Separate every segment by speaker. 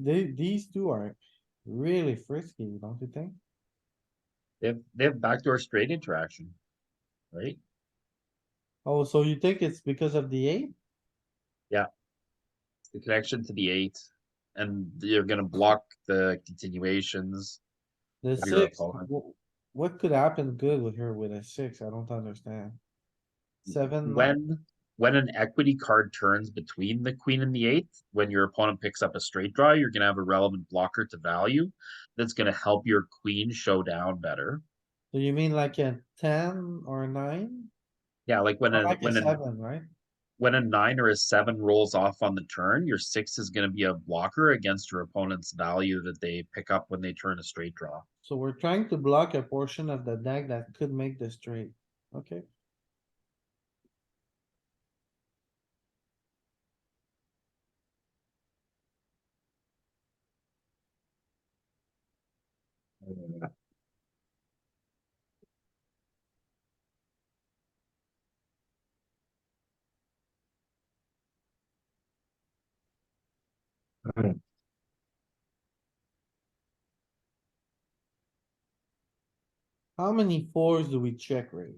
Speaker 1: They, these two are really frisky, don't you think?
Speaker 2: They have, they have backdoor straight interaction. Right?
Speaker 1: Oh, so you think it's because of the eight?
Speaker 2: The connection to the eight. And you're gonna block the continuations.
Speaker 1: The
Speaker 2: Your
Speaker 1: six,
Speaker 2: opponent.
Speaker 1: wh- what could happen good with her with a six? I don't understand. Seven, nine-
Speaker 2: When, when an equity card turns between the queen and the eight, when your opponent picks up a straight draw, you're gonna have a relevant blocker to value. That's gonna help your queen show down better.
Speaker 1: do you mean like a ten or a nine?
Speaker 2: Yeah, like when
Speaker 1: Or
Speaker 2: a,
Speaker 1: Like a
Speaker 2: when a,
Speaker 1: seven, right?
Speaker 2: when a nine or a seven rolls off on the turn, your six is gonna be a blocker against your opponent's value that they pick up when they turn a straight draw.
Speaker 1: So we're trying to block a portion of the deck that could make the straight, okay? How many fours do we check raise?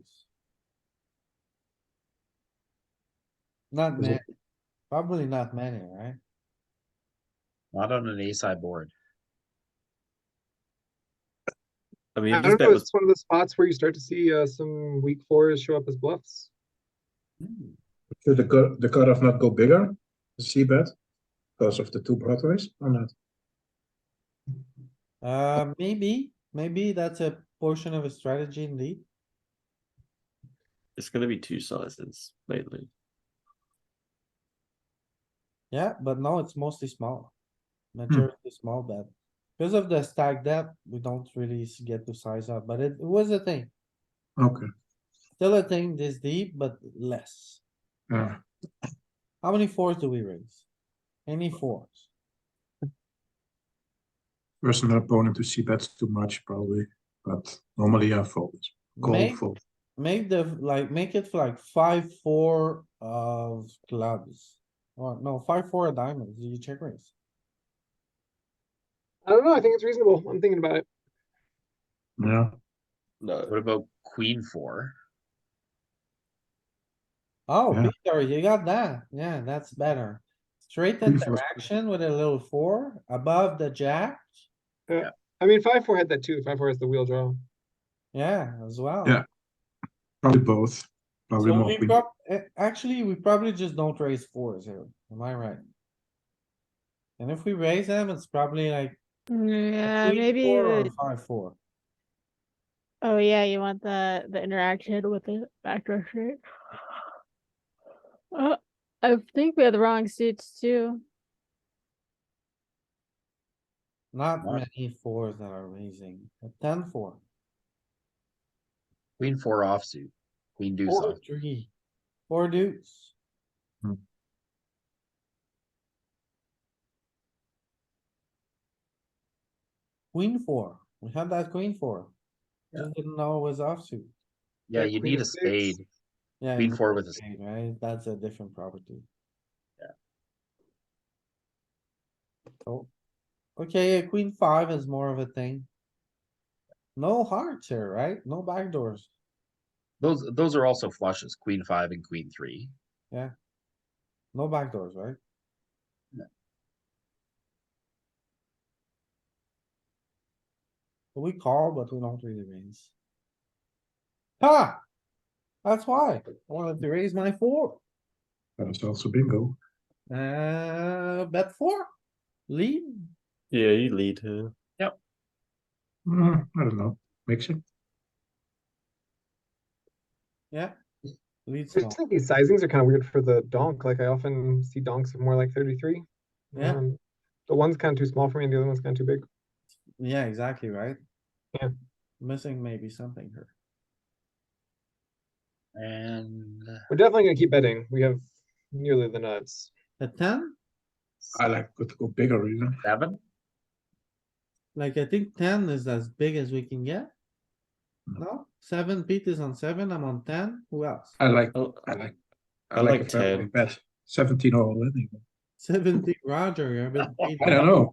Speaker 1: Not
Speaker 3: Is
Speaker 1: many,
Speaker 3: it-
Speaker 1: probably not many, right?
Speaker 2: Not on an ace high board.
Speaker 4: I mean,
Speaker 3: I
Speaker 4: if this
Speaker 3: don't
Speaker 4: bet
Speaker 3: know.
Speaker 4: was
Speaker 3: It's one of the spots where you start to see uh, some weak fours show up as bluffs.
Speaker 5: Should the cut, the cutoff not go bigger, the C bet, because of the two broadways or not?
Speaker 1: Uh, maybe, maybe that's a portion of a strategy indeed.
Speaker 4: it's gonna be two sizes mainly.
Speaker 1: Yeah, but now it's mostly small. Majority small bet. Because of the stack depth, we don't really s- get to size up, but it was a thing.
Speaker 5: Okay,
Speaker 1: Still a thing this deep, but less.
Speaker 5: yeah,
Speaker 1: How many fours do we raise? Any fours?
Speaker 5: personal opponent to C bets too much probably, but normally I fold, call
Speaker 1: Make,
Speaker 5: fold.
Speaker 1: make the, like, make it like five, four of clubs. Or no, five, four of diamonds, you check raise.
Speaker 3: I don't know. I think it's reasonable. I'm thinking about it.
Speaker 5: Yeah,
Speaker 4: No,
Speaker 2: What about queen four?
Speaker 1: Oh,
Speaker 5: Yeah.
Speaker 1: Peter, you got that. Yeah, that's better. Straight
Speaker 5: Queen four.
Speaker 1: interaction with a little four above the jack.
Speaker 3: I mean, five four had that too. Five four has the wheel draw.
Speaker 1: Yeah, as well.
Speaker 5: Yeah, probably both, probably
Speaker 1: So
Speaker 5: more
Speaker 1: we
Speaker 5: queen.
Speaker 1: prob- a- actually, we probably just don't raise fours here. Am I right? And if we raise them, it's probably like. a
Speaker 6: Yeah,
Speaker 1: queen
Speaker 6: maybe.
Speaker 1: four or
Speaker 6: the-
Speaker 1: Five, four.
Speaker 6: Oh yeah, you want the the interaction with the backdoor straight. Uh, I think we have the wrong suits too.
Speaker 1: Not
Speaker 2: Nice.
Speaker 1: many fours that are raising. A ten, four,
Speaker 2: Queen four offsuit, queen deuce
Speaker 1: four,
Speaker 2: off.
Speaker 1: three, four deuce.
Speaker 2: Hmm.
Speaker 1: Queen four. We had that queen four.
Speaker 2: Yeah.
Speaker 1: Just didn't know it was offsuit.
Speaker 2: Yeah,
Speaker 3: Yeah,
Speaker 2: you
Speaker 3: queen
Speaker 2: need a
Speaker 3: of spades.
Speaker 2: spade,
Speaker 1: Yeah.
Speaker 2: queen
Speaker 1: you-
Speaker 2: four with a, spade.
Speaker 1: Okay, Right, that's a different property.
Speaker 2: Yeah.
Speaker 1: Oh, okay, a queen five is more of a thing. No hearts here, right? No backdoors.
Speaker 2: those, those are also flushes, queen five and queen three.
Speaker 1: No backdoors, right?
Speaker 2: No.
Speaker 1: We call, but we don't really raise. Ha! That's why, I wanted to raise my four,
Speaker 5: But it's also bingo.
Speaker 1: uh, bet four, lead,
Speaker 4: yeah, you lead here.
Speaker 5: Hmm, I don't know, mixing.
Speaker 1: lead
Speaker 3: I
Speaker 1: small.
Speaker 3: just think these sizings are kind of weird for the donk. Like I often see donks of more like thirty three.
Speaker 1: Yeah.
Speaker 3: Um, the one's kind of too small for me, and the other one's kind of too big.
Speaker 1: Yeah, exactly, right?
Speaker 3: Yeah.
Speaker 1: Missing maybe something here.
Speaker 2: And
Speaker 3: We're definitely gonna keep betting. We have nearly the nuts.
Speaker 1: A ten?
Speaker 5: I like to go bigger even.
Speaker 2: seven,
Speaker 1: Like, I think ten is as big as we can get.
Speaker 5: No.
Speaker 1: No, seven, Pete is on seven, I'm on ten, who else?
Speaker 5: I like,
Speaker 4: Oh, I,
Speaker 5: I like,
Speaker 4: I
Speaker 5: I like
Speaker 4: like
Speaker 5: a very
Speaker 4: 10.
Speaker 5: big bet, seventeen all in. even.
Speaker 7: Seventeen, Roger, you're a bit.
Speaker 1: I don't know.